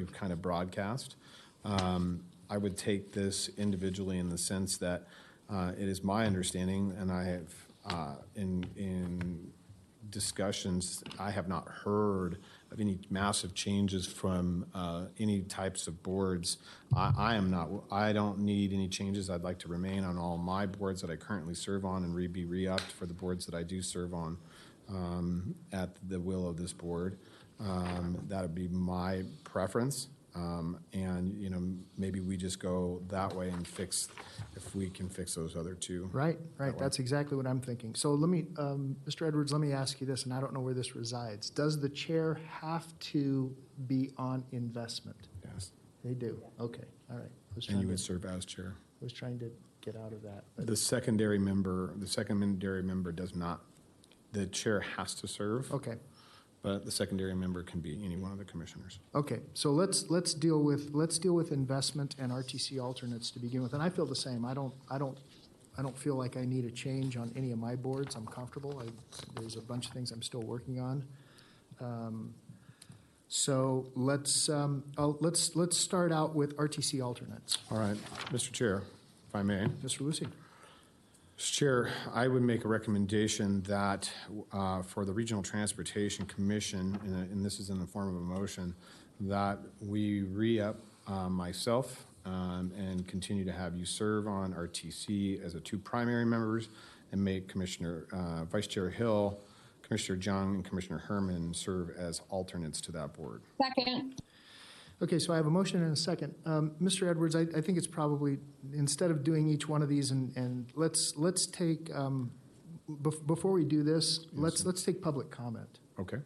we've kind of broadcast. Um, I would take this individually in the sense that uh, it is my understanding, and I have, uh, in, in discussions, I have not heard of any massive changes from uh, any types of boards. I, I am not, I don't need any changes. I'd like to remain on all my boards that I currently serve on and re, be re-upped for the boards that I do serve on um, at the will of this board. Um, That would be my preference. Um, And, you know, maybe we just go that way and fix, if we can fix those other two. Right, right, that's exactly what I'm thinking. So let me, um, Mr. Edwards, let me ask you this, and I don't know where this resides. Does the chair have to be on investment? Yes. They do, okay, all right. I was And you trying would to, serve as chair. was trying to get out of that. but- The secondary member, the secondary member does not, the chair has to serve, Okay, but the secondary member can be any one of the commissioners. okay, so let's, let's deal with, let's deal with investment and RTC alternates to begin with. And I feel the same, I don't, I don't, I don't feel like I need a change on any of my boards, I'm comfortable. I- There's a bunch of things I'm still working on. Um, So let's, um, oh, let's, let's start out with RTC alternates. All right, Mr. Chair, if I may. Mr. Lucy? Mr. Chair, I would make a recommendation that uh, for the Regional Transportation Commission, and- and this is in the form of a motion, that we re-up uh, myself um, and continue to have you serve on RTC as the two primary members, and make Commissioner, uh, Vice Chair Hill, Commissioner Jung, and Commissioner Herman serve as alternates to that board. Second, Okay, so I have a motion and a second. Um, Mr. Edwards, I, I think it's probably, instead of doing each one of these and, and let's, let's take, um, bef- before we do this, let's, let's take public comment. Okay?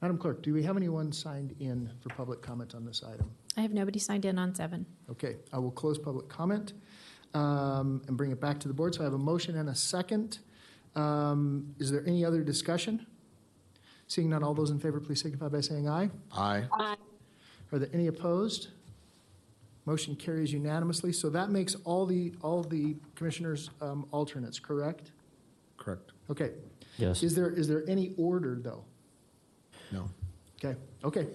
Madam Clerk, do we have anyone signed in for public comment on this item? I have nobody signed in on seven. Okay, I will close public comment um, and bring it back to the board. So I have a motion and a second. Um, Is there any other discussion? Seeing none, all those in favor, please signify by saying aye. Aye. aye. Are there any opposed? Motion carries unanimously. So that makes all the, all the commissioners um, alternates, correct? Correct. Okay. Yes. Is there, is there any order, though? No. Okay, okay,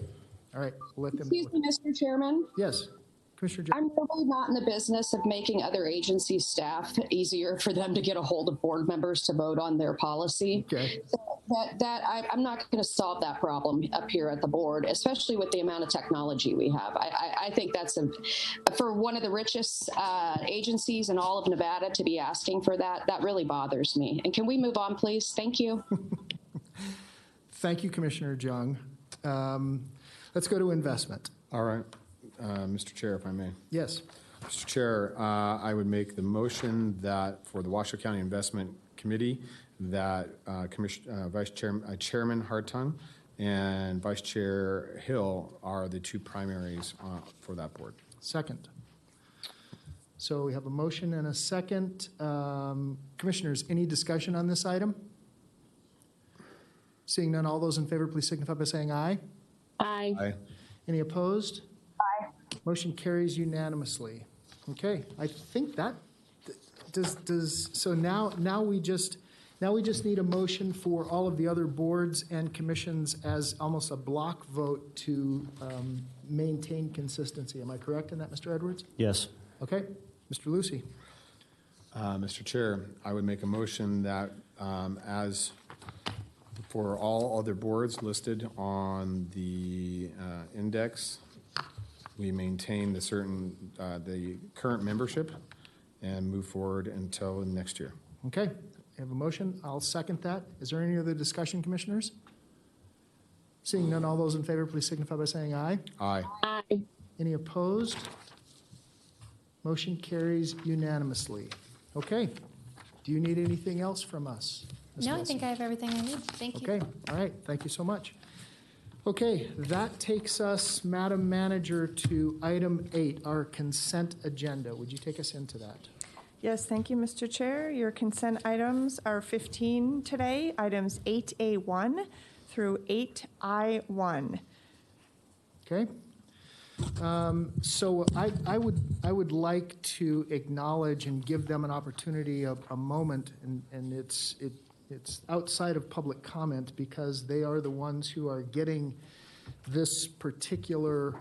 all right, we'll let them. Excuse me, Mr. Chairman. Yes, Commissioner Jones? I'm really not in the business of making other agency staff easier for them to get a hold of board members to vote on their policy. Okay. So That, that, I, I'm not going to solve that problem up here at the board, especially with the amount of technology we have. I, I, I think that's a, for one of the richest, uh, agencies in all of Nevada to be asking for that, that really bothers me. And can we move on, please? Thank you. Thank you, Commissioner Jung. Um, Let's go to investment. All right, Uh, Mr. Chair, if I may. Yes, Mr. Chair, uh, I would make the motion that for the Washoe County Investment Committee, that uh, Commiss- uh, Vice Chair- uh, Chairman Hartung and Vice Chair Hill are the two primaries uh, for that board. second. So we have a motion and a second. Um, Commissioners, any discussion on this item? Seeing none, all those in favor, please signify by saying aye. Aye. Aye. Any opposed? Aye. Motion carries unanimously. Okay, I think that, does, does, so now, now we just, now we just need a motion for all of the other boards and commissions as almost a block vote to um, maintain consistency. Am I correct in that, Mr. Edwards? Yes. Okay, Mr. Lucy? Uh, Mr. Chair, I would make a motion that um, as for all other boards listed on the uh, index, we maintain the certain, uh, the current membership and move forward until next year. Okay, I have a motion. I'll second that. Is there any other discussion, commissioners? Seeing none, all those in favor, please signify by saying aye. Aye. Aye. Any opposed? Motion carries unanimously. Okay. Do you need anything else from us? Ms. No, I Wilson? think I have everything I need. Thank you. Okay, all right, thank you so much. Okay, that takes us, Madam Manager, to item eight, our consent agenda. Would you take us into that? Yes, thank you, Mr. Chair. Your consent items are 15 today, items 8A1 through 8I1. Okay? Um, So I, I would, I would like to acknowledge and give them an opportunity, a, a moment, and, and it's, it, it's outside of public comment because they are the ones who are getting this particular